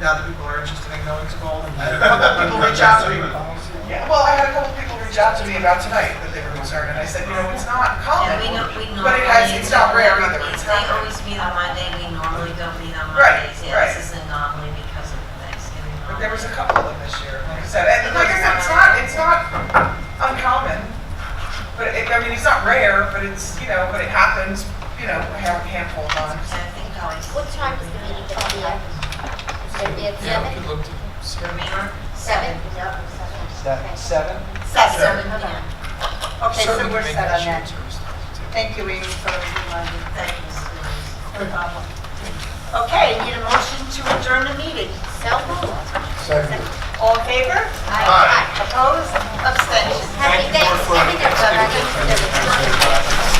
now that people are interested in knowing it's called, and a couple of people reach out to me. Yeah, well, I had a couple of people reach out to me about tonight that they were concerned, and I said, you know, it's not common. Yeah, we don't, we normally. But it has, it's not rare either, it's They not rare. always meet on Monday, we normally don't meet on Right, Mondays. Yeah, right. this is an anomaly because of the Thanksgiving But there holiday. was a couple of them this year, like I said, and like I said, it's not, it's not uncommon. But it, I mean, it's not rare, but it's, you know, but it happens, you know, a hand- handful of times. So I think always. What time is the meeting going to be at? It's going to be at Yeah, we could seven? look to Seven? Seven, seven? Seven. Yeah. Okay, so certainly we're make set on shared that. service. Thank you, Amy, for reminding. Thanks. No problem. Okay, need a motion to adjourn the meeting. So moved. Seven. All in favor? Aye. Opposed? Abstentions? Happy Thanksgiving, everybody.